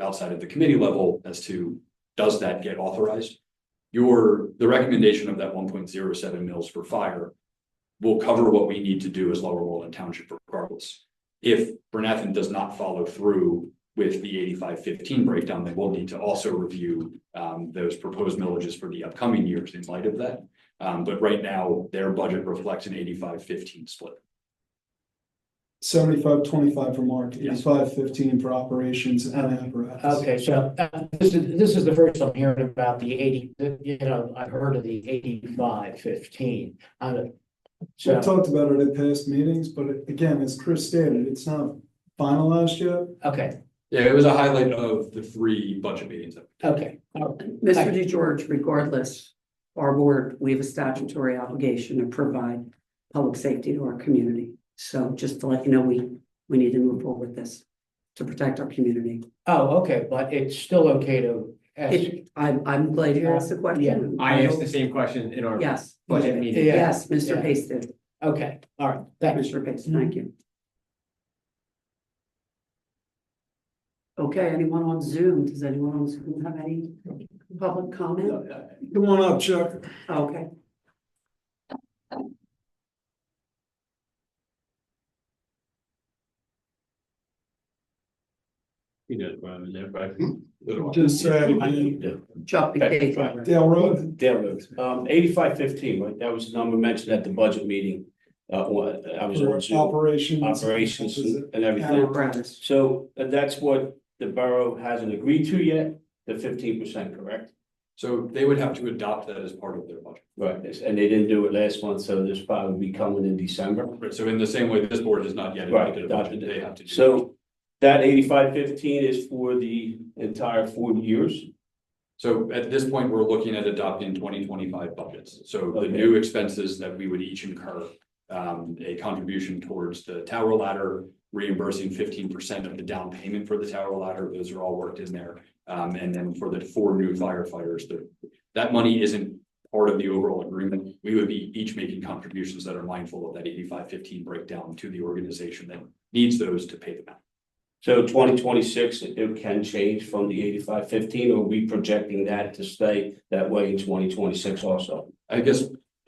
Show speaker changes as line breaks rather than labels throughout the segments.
outside of the committee level as to does that get authorized? Your, the recommendation of that one point zero seven mils for fire will cover what we need to do as Lower Moreland Township regardless. If Bernathen does not follow through with the eighty-five fifteen breakdown, then we'll need to also review um, those proposed millages for the upcoming years in light of that. Um, but right now, their budget reflects an eighty-five fifteen split.
Seventy-five, twenty-five for Mark,
Yes.
eighty-five, fifteen for operations and apparatus.
Okay, so uh, this is, this is the first I'm hearing about the eighty, you know, I've heard of the eighty-five fifteen. I don't-
We
So,
talked about it at past meetings, but again, as Chris stated, it's not finalized yet.
okay,
Yeah, it was a highlight of the three budget meetings.
okay. Oh,
Mr. DeGeorge, regardless, our board, we have a statutory obligation to provide public safety to our community. So just to let you know, we, we need to move forward with this to protect our community.
Oh, okay, but it's still okay to ask.
It- I'm, I'm glad you asked the question.
I asked the same question in our
Yes,
budget meeting.
Yeah.
yes, Mr.
Yeah.
Pace did.
Okay, all right, thanks.
Mr. Pace, thank you. Okay, anyone on Zoom? Does anyone on Zoom have any public comment?
Come on up, Chuck.
Okay.
You know, rather than everybody.
Just say it again.
Chuck.
Okay,
Buchanan.
Dale Road,
Dale Rose, um, eighty-five fifteen, right, that was the number mentioned at the budget meeting, uh, when I was
for
on Zoom,
operations.
operations and
Anna
everything.
Brennan.
So uh, that's what the borough hasn't agreed to yet, the fifteen percent, correct?
So they would have to adopt that as part of their budget.
Right, it's- and they didn't do it last month, so this probably will be coming in December.
Right, so in the same way, this board has not yet
Right,
adopted a budget,
adopted
they have to. do that.
So that eighty-five fifteen is for the entire four years,
So at this point, we're looking at adopting twenty twenty-five budgets. So the
Okay.
new expenses that we would each incur, um, a contribution towards the tower ladder, reimbursing fifteen percent of the down payment for the tower ladder, those are all worked in there. Um, and then for the four new firefighters, the, that money isn't part of the overall agreement. We would be each making contributions that are mindful of that eighty-five fifteen breakdown to the organization that needs those to pay them out.
so twenty twenty-six, it can change from the eighty-five fifteen, or we projecting that to stay that way in twenty twenty-six also?
I guess,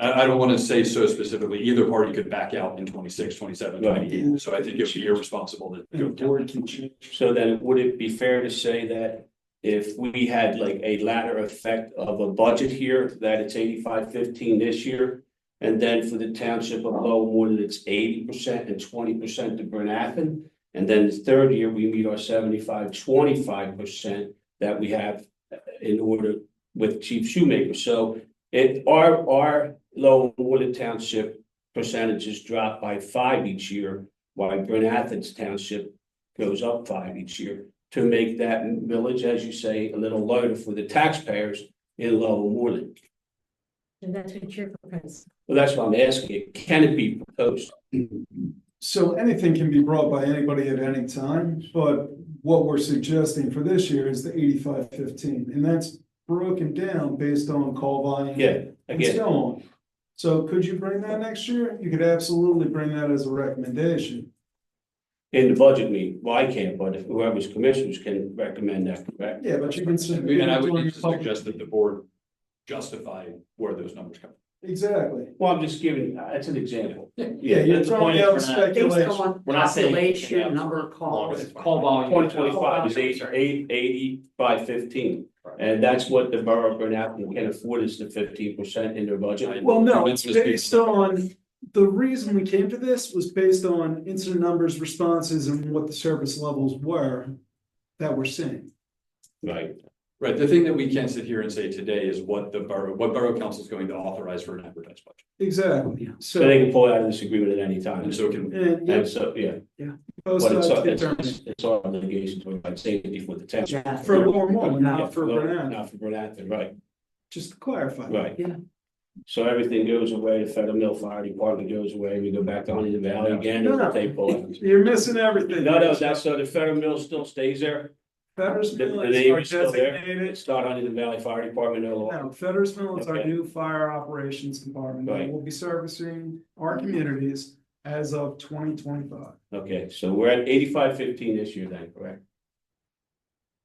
I, I don't want to say so specifically, either party could back out in 26, 27, 28.
Right.
so I think it would be irresponsible to
The
go down.
board can change.
So then would it be fair to say that if we had like a ladder effect of a budget here, that it's eighty-five fifteen this year? And then for the township of Lowwood, it's eighty percent and twenty percent to Bernathen? And then the third year, we meet our 75 25 percent that we have in order with Chief Shoemaker. So it, our, our Lowwood Township percentages drop by five each year, while Bernathen's Township goes up five each year to make that village, as you say, a little lighter for the taxpayers in Lower Moreland.
And that's what your proposal.
Well, that's what I'm asking. Can it be proposed?
So anything can be brought by anybody at any time, but what we're suggesting for this year is the eighty-five, fifteen, and that's broken down based on call volume.
Yeah,
And
again,
so on. So could you bring that next year? You could absolutely bring that as a recommendation.
in the budget meeting, well, I can't, but if whoever's commissioners can recommend that, correct?
Yeah, but you can. send-
And I would need to suggest that the board justify where those numbers come. from.
Exactly.
Well, I'm just giving, uh, that's an example.
Yeah, you're
that's the point
throwing out
is we're not-
Based
speculation.
on
We're not saying-
population, number of calls.
Call volume.
Twenty twenty-five is eight,
Sorry.
eight, eighty by fifteen.
Right.
And that's what the borough of Bernathen can afford is the fifteen percent in their budget.
Well, no, it's
Commencement
based
speech.
on, the reason we came to this was based on incident numbers, responses, and what the service levels were that we're seeing.
Right.
Right, the thing that we can't sit here and say today is what the borough, what borough council is going to authorize for an advertised budget.
Exactly,
So they
so.
can pull out of this agreement at any time.
And so can,
And, yeah,
And so, yeah.
both
But
sides
it's, our-
get
it's,
turned
it's our obligation to provide safety for the town.
Yeah.
for Lower Moreland,
Yeah,
not for Bernathen,
Not for Bernathen, right,
just to clarify.
right.
Yeah.
So everything goes away, the Federal Mill Fire Department goes away, we go back down to the valley
No.
again,
No, no.
and they pull out.
You're missing everything.
No, no, that's, so the Federal Mill still stays there,
Fetter's
the-
Mill
the
is
name
our
is still there?
designated,
it's not under the Valley Fire Department at all.
no, Fetter's Mill is our
Okay.
new fire operations department that
Right.
will be servicing our communities as of twenty twenty-five.
Okay, so we're at eighty-five fifteen this year then, correct?